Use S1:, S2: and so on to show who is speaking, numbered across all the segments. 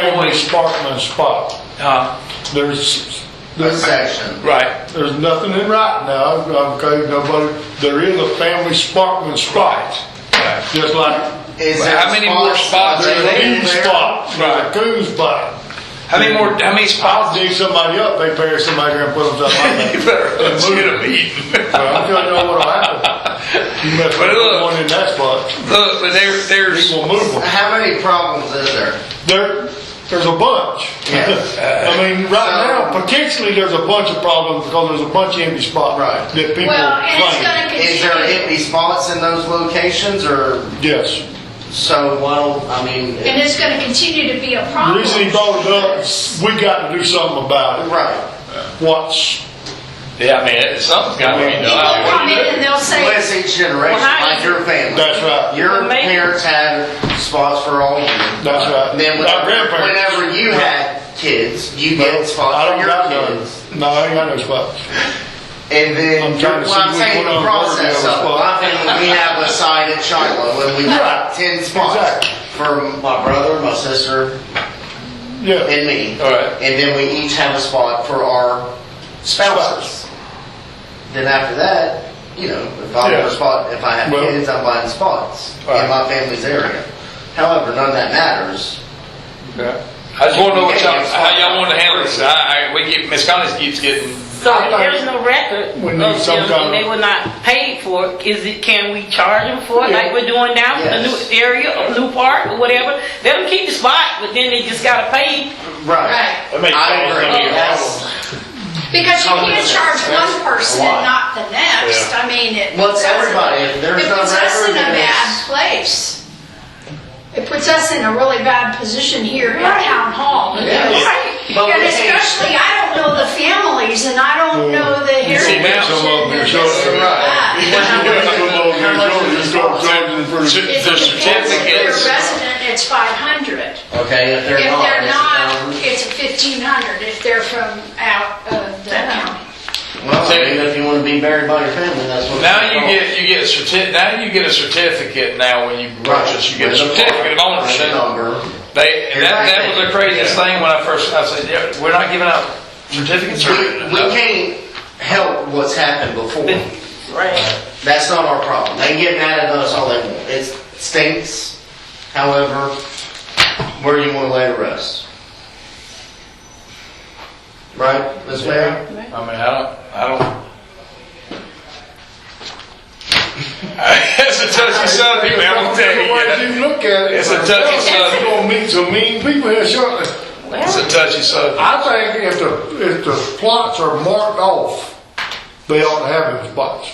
S1: parking spot.
S2: Uh,
S1: There's,
S3: a
S1: there's,
S3: section.
S2: right.
S1: there's nothing in writing now, okay, nobody, there is a family Sparkman spot,
S2: right.
S1: just like
S3: Is
S2: Well,
S3: there
S2: how many more spots
S3: are
S1: there's
S3: there
S1: a
S3: in
S1: coon
S3: there?
S1: spot, there's a coon spot.
S2: How many more? How many
S1: I'll
S2: spots?
S1: dig somebody up, they bury somebody there and put them
S2: You
S1: somewhere.
S2: better let's get a meeting.
S1: I'm telling you what'll happen. You better put one in that spot,
S2: Look, but there, there's.
S1: people move them.
S3: How many problems is there?
S1: There, there's a bunch.
S3: Yeah.
S1: I mean, right now, potentially, there's a bunch of problems because there's a bunch of empty spots.
S3: Right.
S1: That people
S4: Well, and it's
S1: claim.
S4: gonna
S3: Is there
S4: continue,
S3: empty spots in those locations or,
S1: Yes.
S3: so, well, I mean,
S4: and it's gonna continue to be a
S1: The
S4: problem.
S1: reason he brought it up, we got to do something about
S3: right.
S1: it. What's,
S2: Yeah, I mean, it- something's got to be done.
S4: People come in and they'll say,
S3: Bless each generation,
S4: Well, how
S3: like
S4: do you-
S3: your family.
S1: that's right,
S3: Your
S4: Well, maybe-
S3: parents had spots for all of you.
S1: that's right.
S3: And then
S1: Our
S3: whenever,
S1: grandparents.
S3: whenever you had kids, you
S1: No,
S3: get
S1: I
S3: spots
S1: don't
S3: for your
S1: got none.
S3: kids.
S1: No, I ain't got no spots.
S3: And then,
S1: I'm trying to
S3: well, I'm
S1: see which
S3: saying
S1: one
S3: the
S1: I'm
S3: process
S1: working on.
S3: of, it. my family, we have a sign at Shiloh and we
S1: Right.
S3: got ten spots
S1: Exactly.
S3: for my brother, my sister,
S1: Yeah,
S3: and me.
S2: All right.
S3: And then we each have a spot for our spouses. Then after that, you know, if I
S1: Yeah.
S3: have a spot, if I have
S1: Well-
S3: kids, I'm buying spots
S2: Right.
S3: in my family's area. However, none of that matters.
S2: I just want to know what y'all, how y'all want to handle this. I, I, we get, Miss Collins keeps getting,
S5: So if there's no record of
S1: We
S5: them
S1: need some kind
S5: and they
S1: of-
S5: were not paid for it, is it, can we charge them for it like we're doing now for the new
S3: Yes.
S5: area or new park or whatever? Let them keep the spot, but then they just gotta pay.
S3: Right.
S4: right,
S3: I agree. That's-
S4: because you can't
S3: Something's
S4: charge one
S3: expensive.
S4: person
S3: Why?
S4: and not the next, I mean, it.
S3: Well, it's
S4: puts us in-
S3: everybody. If there's no
S4: It puts us in
S3: record,
S4: a
S3: then it's-
S4: bad place. It puts us in a really bad position here at town hall. because-
S3: But we
S4: And
S3: can't-
S4: especially, I don't know the families and I don't know the
S1: Mm. You see
S4: heritage.
S2: some
S1: of them,
S4: and
S1: you're
S4: this
S1: sure.
S4: and that.
S1: Some of them, you're sure, you start charging for the-
S4: If
S2: the
S4: it's- if they're
S2: certificates.
S4: resident, it's five hundred.
S3: Okay, if they're
S4: If
S3: not,
S4: they're
S3: it's a
S4: not,
S3: thousand.
S4: it's fifteen hundred if they're from out of the county.
S3: Well, I mean, if you want to be buried by your family, that's what.
S2: Now you get, you get certi, now you get a certificate now when you purchase, you get a certificate of
S3: Right,
S2: ownership.
S3: Number.
S2: They, and that, that was the craziest thing when I first, I said, yeah, we're not giving out certificates or.
S3: We, we can't help what's happened before.
S5: Right.
S3: That's not our problem. They can get mad at us all they want. It stinks. However, where you want to lay it rest. Right, Ms. Mayor?
S2: I mean, I don't, I don't. It's a touchy subject, man, I'm gonna tell you.
S1: Otherwise, you look at it.
S2: It's a touchy subject.
S1: You're gonna meet some mean people here shortly.
S2: It's a touchy subject.
S1: I think if the, if the plots are marked off, they ought to have them spots.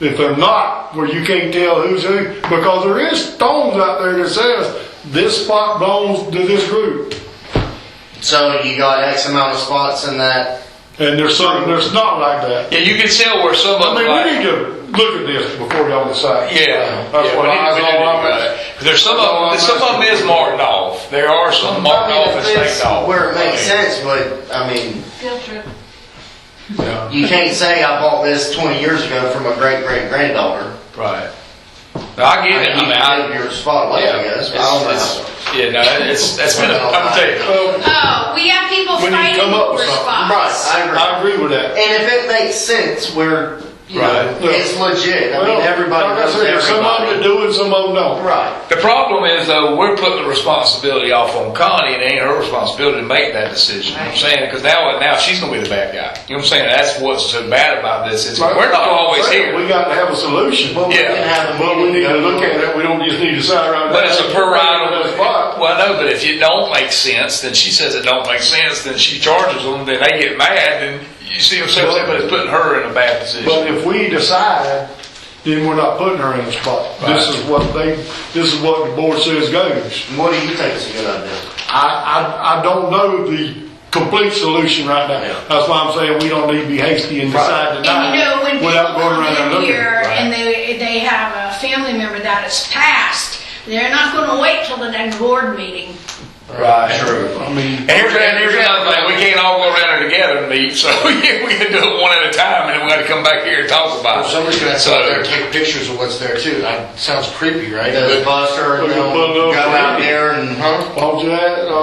S1: If they're not, where you can't tell who's who, because there is stones out there that says, this spot belongs to this group.
S3: So you got X amount of spots in that.
S1: And there's some, there's not like that.
S2: Yeah, you can tell where some
S1: I
S2: of them like.
S1: mean, we need to look at this before y'all decide.
S2: Yeah.
S1: That's what I, that's all I'm asking.
S2: There's some of,
S1: That's all
S2: some
S1: I'm
S2: of them is marked off. There are some marked
S3: I
S2: off
S3: mean,
S2: and
S3: if it's
S2: staked off.
S3: Where it makes
S2: I mean,
S3: sense, but I mean,
S4: Field trip.
S3: you can't say I bought this 20 years ago from a great great granddaughter.
S2: Right. No, I get it. I
S3: you
S2: mean,
S3: can
S2: I,
S3: give your spot away,
S2: yeah,
S3: I guess.
S2: it's,
S3: but I don't know.
S2: it's, yeah, no, it's, that's been, a- I'm gonna tell you.
S1: Well,
S4: Oh, we have people
S1: When you
S4: fighting
S1: come up
S4: over
S1: with something,
S4: spots.
S3: Right, I agree.
S1: Um, I agree with that.
S3: And if it makes sense, where you
S2: Right.
S3: know it's legit. I mean,
S1: Well,
S3: everybody
S1: like I
S3: knows
S1: said, there's Some of them that
S3: everybody.
S1: do it, some of them don't.
S3: Right.
S2: The problem is though, we're putting the responsibility off on Connie and it ain't her responsibility to make that decision. You know what I'm saying, cause now, now she's gonna be the bad guy. You know what I'm saying? That's what's so bad about this is we're not always
S1: We
S2: here.
S1: got to have a solution.
S3: Well, we
S2: Yeah.
S3: can have a
S1: Well, we need
S3: meeting.
S1: to look at it, we don't just need to decide right now.
S2: But it's a per
S1: That's
S2: item.
S1: fine.
S2: Well, I know, but if it don't make sense, then she says it don't make sense, then she charges them, then they get mad, and you see what I'm saying? But it's putting her in a bad
S1: But
S2: position.
S1: if we decide, then we're not putting her in the spot. This
S2: Right.
S1: is what they, this is what the board says goes.
S3: What do you think is a good idea?
S1: I, I, I don't know the complete solution right now.
S3: Yeah.
S1: That's why I'm saying we don't need to be hasty and decide
S4: And
S1: tonight.
S4: you know, when people
S1: without going around and
S4: come in
S1: looking.
S4: here and they, they have a family member that has passed, they're not gonna wait till the next board meeting.
S2: Right.
S1: I mean,
S2: And here's, and here's another thing, we can't all go around there together and meet, so yeah, we can do it one at a time, and then we gotta come back here and talk about it.
S6: Somebody's gonna have to
S2: So,
S6: go out there and take pictures of what's there too. That sounds creepy, right?
S3: Does Buster and
S1: Put a
S3: them
S1: little
S3: go out
S1: lady.
S3: there and huh?
S1: why don't you add, uh,